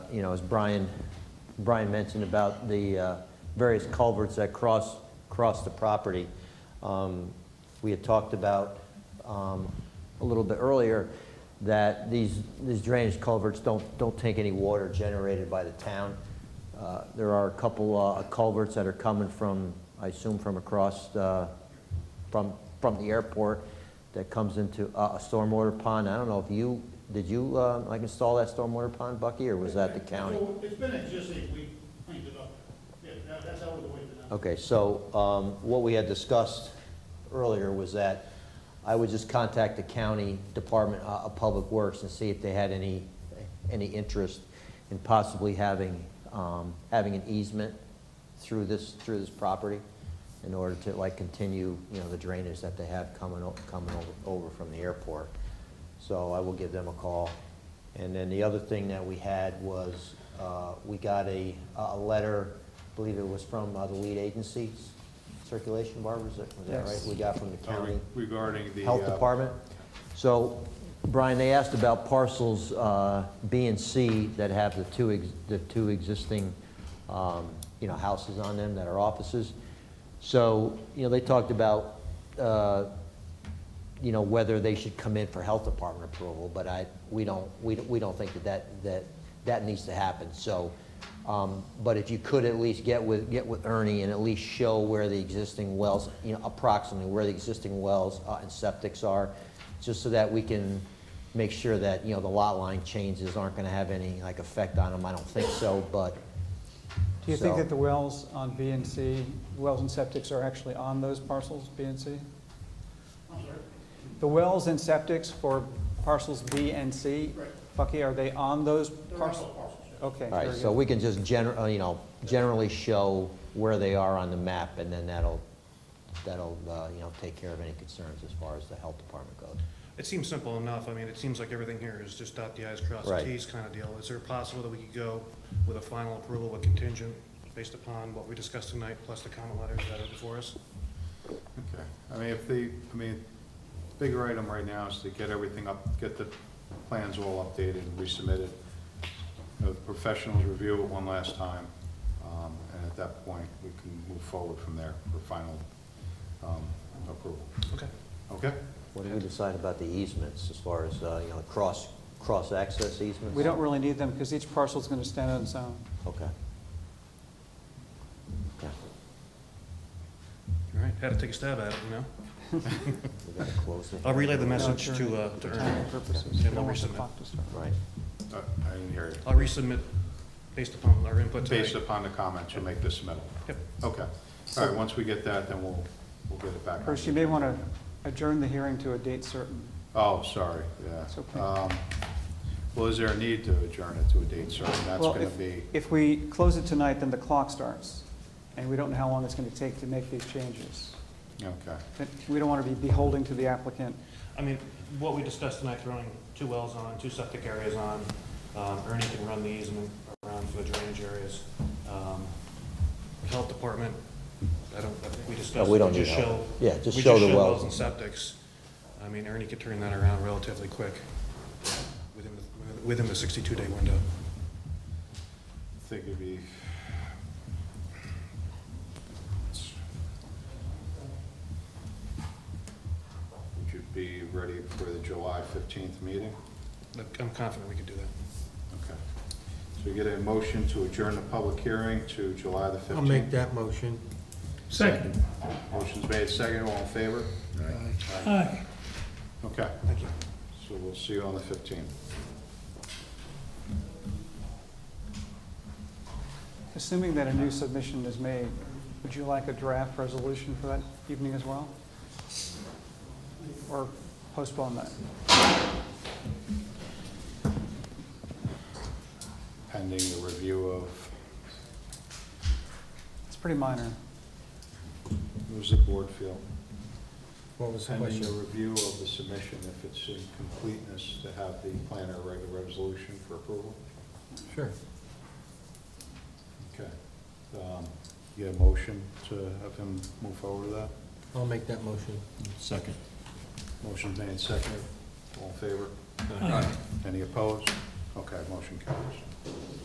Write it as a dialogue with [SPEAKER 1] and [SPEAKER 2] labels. [SPEAKER 1] you know, as Brian, Brian mentioned about the uh, various culverts that cross, cross the property. Um, We had talked about um, a little bit earlier that these, these drainage culverts don't, don't take any water generated by the town. Uh, There are a couple uh, culverts that are coming from, I assume from across, uh, from, from the airport that comes into uh, a a stormwater pond. I don't know if you, did you, uh, like install that stormwater pond, Bucky, or was that the county?
[SPEAKER 2] Well, It's been existing, we cleaned it up. Yeah, that- that's out of the way for now.
[SPEAKER 1] Okay, so um, what we had discussed earlier was that I would just contact the county Department uh, of Public Works and see if they had any, any interest in possibly having, um, having an easement through this, through this property in order to like continue, you know, the drainage that they have coming, o- coming o- over from the airport. So I will give them a call. And then the other thing that we had was, uh, we got a, a letter, I believe it was from uh, the lead agency, Circulation Barbara, is that, was that right?
[SPEAKER 3] Yes.
[SPEAKER 1] We got from the
[SPEAKER 4] Uh,
[SPEAKER 1] county.
[SPEAKER 4] Regarding the.
[SPEAKER 1] Health
[SPEAKER 4] uh,
[SPEAKER 1] Department. So, Brian, they asked about parcels uh, B and C that have the two, ex- the two existing, um, you know, houses on them that are offices. So, you know, they talked about, uh, you know, whether they should come in for Health Department approval, but I, we don't, we don't- we don't think that that, that that needs to happen, so. um, But if you could at least get with, get with Ernie and at least show where the existing wells, you know, approximately where the existing wells uh, and septics are, just so that we can make sure that, you know, the lot line changes aren't gonna have any, like, effect on them, I don't think so, but.
[SPEAKER 3] Do you think
[SPEAKER 1] so-
[SPEAKER 3] that the wells on B and C, wells and septics are actually on those parcels, B and C?
[SPEAKER 2] I'm sorry.
[SPEAKER 3] The wells and septics for parcels B and C,
[SPEAKER 2] Right.
[SPEAKER 3] Bucky, are they on those
[SPEAKER 2] They're all
[SPEAKER 3] parcels?
[SPEAKER 2] parcels, yeah.
[SPEAKER 3] Okay.
[SPEAKER 1] All right,
[SPEAKER 3] very
[SPEAKER 1] so
[SPEAKER 3] good.
[SPEAKER 1] we can just gener, uh, you know, generally show where they are on the map, and then that'll, that'll, uh, you know, take care of any concerns as far as the health department goes.
[SPEAKER 5] It seems simple enough. I mean, it seems like everything here is just dot the i's, cross the
[SPEAKER 1] Right.
[SPEAKER 5] t's kind of deal. Is there possible that we could go with a final approval with contingent based upon what we discussed tonight, plus the comment letters that are before us?
[SPEAKER 4] Okay, I mean, if the, I mean, bigger item right now is to get everything up, get the plans all updated and resubmitted. The Professionals review it one last time, um, and at that point, we can move forward from there for final um, approval.
[SPEAKER 5] Okay.
[SPEAKER 4] Okay?
[SPEAKER 1] What do we decide about the easements as far as, uh, you know, cross, cross-access easements?
[SPEAKER 3] We don't really need them because each parcel's going to stand on its own.
[SPEAKER 1] Okay. Okay,
[SPEAKER 5] All right, had to take a stab at it, you know?
[SPEAKER 1] we gotta close it.
[SPEAKER 5] I'll relay the
[SPEAKER 3] No,
[SPEAKER 5] message
[SPEAKER 3] sure.
[SPEAKER 5] to, uh, to
[SPEAKER 3] For
[SPEAKER 5] Ernie.
[SPEAKER 3] timing purposes.
[SPEAKER 5] Yeah,
[SPEAKER 3] We don't
[SPEAKER 5] we'll
[SPEAKER 3] want the
[SPEAKER 5] resubmit.
[SPEAKER 3] clock to start.
[SPEAKER 1] Right,
[SPEAKER 4] Uh, I didn't hear you.
[SPEAKER 5] I'll resubmit based upon our input
[SPEAKER 4] Based
[SPEAKER 5] tonight.
[SPEAKER 4] upon the comments, you'll make this submittal.
[SPEAKER 5] Yep.
[SPEAKER 4] Okay. All right, once we get that, then we'll, we'll get it back. on
[SPEAKER 3] Bruce,
[SPEAKER 4] the
[SPEAKER 3] you may
[SPEAKER 4] agenda.
[SPEAKER 3] want to adjourn the hearing to a date certain.
[SPEAKER 4] Oh, sorry, yeah.
[SPEAKER 3] It's okay.
[SPEAKER 4] Um, Well, is there a need to adjourn it to a date certain? That's
[SPEAKER 3] Well,
[SPEAKER 4] going to
[SPEAKER 3] if-
[SPEAKER 4] be,
[SPEAKER 3] If we close it tonight, then the clock starts, and we don't know how long it's going to take to make these changes.
[SPEAKER 4] okay.
[SPEAKER 3] But We don't want to be beholden to the applicant.
[SPEAKER 5] I mean, what we discussed tonight, throwing two wells on, two septic areas on, um, Ernie can run the easement around for the drainage areas. Um, Health department, I don't, I think we discussed.
[SPEAKER 1] we don't
[SPEAKER 5] just
[SPEAKER 1] need help.
[SPEAKER 5] show-
[SPEAKER 1] Yeah, just
[SPEAKER 5] we
[SPEAKER 1] show the wells.
[SPEAKER 5] wells and septics. I mean, Ernie could turn that around relatively quick, within, the- within the sixty-two day window.
[SPEAKER 4] I think it'd be... Would you be ready for the July 15th meeting?
[SPEAKER 5] I'm confident we could do that.
[SPEAKER 4] Okay. So we get a motion to adjourn the public hearing to July the 15th?
[SPEAKER 6] I'll make that motion.
[SPEAKER 4] Second. Motion's made, second, all in favor? Aye. Okay.
[SPEAKER 5] Thank you.
[SPEAKER 4] So we'll see you on the 15th.
[SPEAKER 3] Assuming that a new submission is made, would you like a draft resolution for that evening as well? Or postpone that?
[SPEAKER 4] pending the review of,
[SPEAKER 3] It's pretty minor.
[SPEAKER 4] who's the board feel?
[SPEAKER 6] What was the
[SPEAKER 4] Pending the
[SPEAKER 6] question?
[SPEAKER 4] review of the submission, if it's in completeness, to have the planner write a resolution for approval?
[SPEAKER 6] Sure.
[SPEAKER 4] Okay. Um, You have a motion to have him move forward with that?
[SPEAKER 6] I'll make that motion.
[SPEAKER 4] Second. Motion made, second. All in favor? Any opposed? Okay, motion carries.